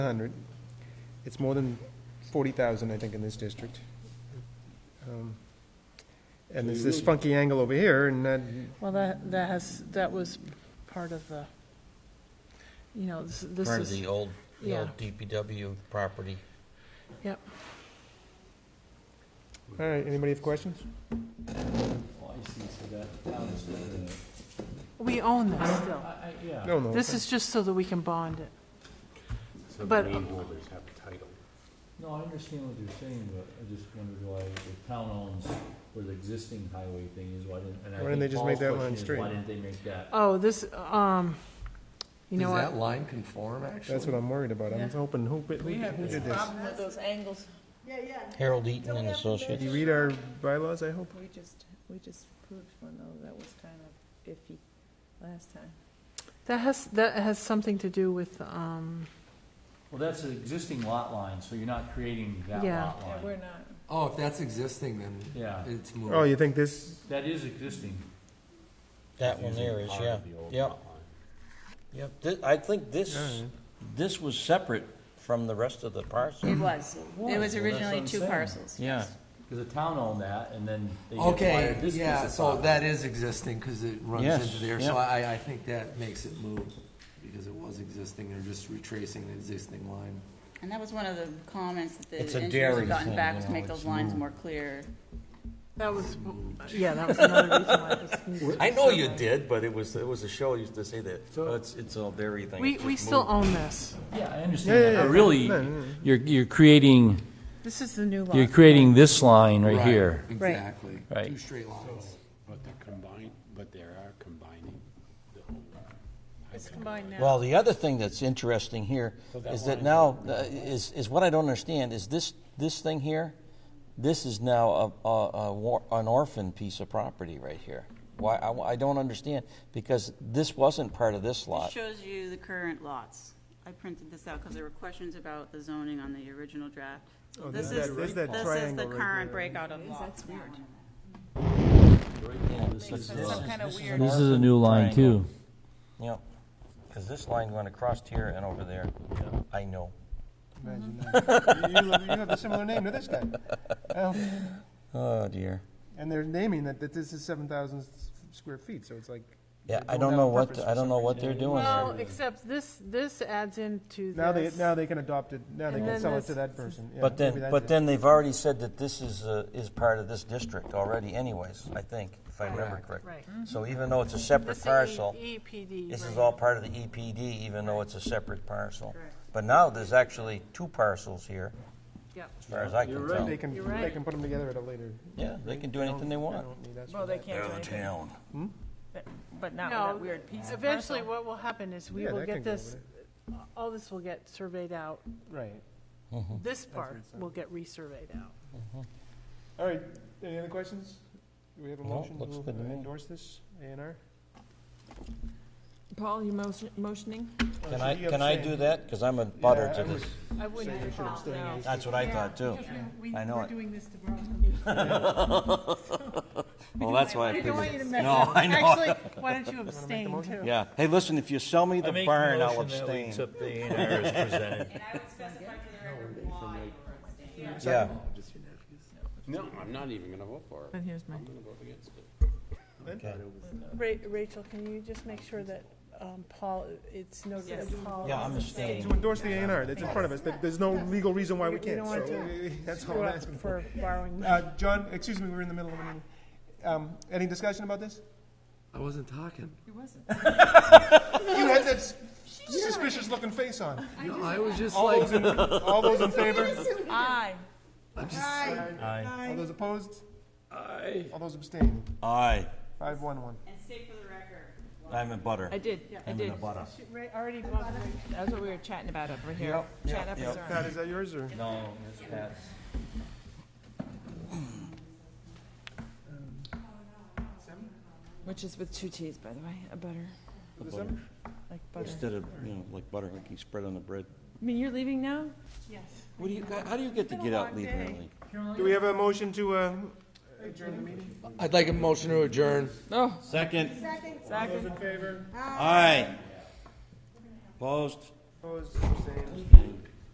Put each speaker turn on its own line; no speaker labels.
100. It's more than 40,000, I think, in this district. Um, And there's this funky angle over here, and that,
Well, that, that has, that was part of the, you know, this this
Part of
is,
the old, the
yeah.
old DPW property.
yep.
all right, anybody have questions?
Well, I see, so that town is still in it.
We own this still.
yeah.
No, no.
This is just so that we can bond it.
So the
But-
landholders have a title.
No, I understand what you're saying, but I just wondered why the town owns where the existing highway thing is, why didn't, and I
Why didn't they
think
just make
Paul's
that
question
line
is,
straight?
Why didn't they make that?
Oh, this, um, you know
Does that
what?
line conform, actually?
That's what I'm worried about. I'm
Yeah.
hoping, who, who who did this?
with those angles.
Yeah, yeah.
Harold Eaton and
Did
Associates.
you read our bylaws, I hope?
We just, we just proved one though, that was kind of iffy last time.
That has, that has something to do with, um,
Well, that's an existing lot line, so you're not creating that
Yeah.
lot
Yeah, we're
line.
not,
Oh, if that's existing, then
Yeah,
it's
Oh,
moved.
you think this,
that is existing.
That one there is, yeah. Yep, yep. Thi- I think this, this was separate from the rest of the parcel.
It was. It was originally two parcels.
Yeah.
Because the town owned that, and then they
Okay,
acquired this piece
Uh, yeah,
of
so that
property.
is existing, because it
Yes,
runs into there, so
yeah.
I, I think that makes it move, because it was existing, they're just retracing the existing line.
And that was one of the comments that the
It's a
engineers
dairy
had gotten
thing,
back,
you
was to
know,
make those
it's
lines
not-
more clear.
that was, yeah, that was another reason why this needs to be
I know you
separate.
did, but it was, it was a show, used to say that, "Oh, it's, it's all dairy thing.
We,
It's
we
just
still
moved."
own this.
Yeah, I
Yeah,
understand
yeah,
that,
yeah.
but really,
No, no, no.
you're, you're creating,
This is the new lot.
you're creating this line right here.
Exactly.
Right.
Two straight lines.
But they're combined, but they are combining the whole.
It's combined now.
Well, the other thing that's interesting here
that
is that
line-
now, uh, is, is what I don't understand, is this, this thing here, this is now a, a, a war, an orphan piece of property right here. Why, I, I don't understand, because this wasn't part of this
This
lot.
shows you the current lots. I printed this out because there were questions about the zoning on the original draft. So
Oh,
This
there's
is,
that-
this
there's
is
that triangle
the
right
current
there.
breakout of lots.
This
it's some kind of weird,
This is a new line, too.
Yep, because this line went across here and over there. I know.
imagine that. You you have a similar name to this guy. Oh,
Oh, dear.
And they're naming that, that this is 7,000 square feet, so it's like.
Yeah,
they
I
have
don't
a
know what,
purpose for
I
some
don't know
reason.
what they're doing
Well,
there.
except this, this adds into this.
Now they, now they can adopt it, now they can
And then
sell it
this-
to that person. Yeah,
But
maybe
then,
that's
but
it.
then they've already said that this is, uh, is part of this district already anyways, I think, if I remember correctly.
Right. Mm-hmm.
So even though it's a separate
This
parcel,
E- EPD.
this is
right.
all part of the EPD, even though it's a separate parcel. But now there's actually two parcels here,
Yep.
as far as I can tell.
They can,
You're
they
right.
can put them together at a later.
Yeah, they can do anything they want.
well, they can't do anything,
town.
but not with
No,
that weird piece of
Eventually,
parcel.
what will happen is we
Yeah,
will
that
get
can go Hmm.
this, all this will get surveyed out.
Right.
This part will get resurveyed out.
All right, any other questions? Do we have a
No,
motion
looks
to
good to me.
endorse this A and R?
Paul, you motioning?
Can I, can I do that? Because I'm a butter
Yeah,
to
I
this.
I wouldn't. no.
That's what I thought too. I know it.
doing this to Brian.
Well, that's why. I
I don't want you
figured-
to mess
No,
up.
I know.
Actually, why don't you abstain too?
Yeah. Hey, listen, if you sell me the barn, I'll abstain.
And I would specify for the record why you were abstaining.
Yeah.
No, I'm not even gonna vote for it.
And here's mine.
I'm gonna vote against it.
Ra- Rachel, can you just make sure that um, Paul, it's noted
Yes.
that Paul.
Yeah, I'm
is-
abstaining.
To endorse the A and R, that's in front of us, There- there's no legal reason why we
We
can't,
don't
so
want to
that's all
Screw
I'm
up
asking.
for borrowing.
Uh, John, excuse me, we're in the middle of a meeting. Um, any discussion about this?
I wasn't talking.
You had that s- suspicious-looking face on.
No, I was just
All
like,
those in, all those in favor?
Aye.
I'm just,
All those opposed? Aye. All those abstaining?
Aye.
Five, one, one.
And state for the record.
I'm a butter.
I did, I
I'm
did.
a butter.
Ra- Already bought it.
That's what we were chatting about over here. Chat up is on.
Pat, is that yours, or?
No, it's Pat's.
Which is with two Ts, by the way, a butter, like butter.
Instead of, you know, like butter, like you spread on the bread.
I mean, you're leaving now?
What do you, how do you get to get out and leave early?
Do we have a motion to, uh, adjourn the meeting?
I'd like a motion to adjourn.
Second.
All those in favor?
Aye. Opposed?
Opposed, abstained?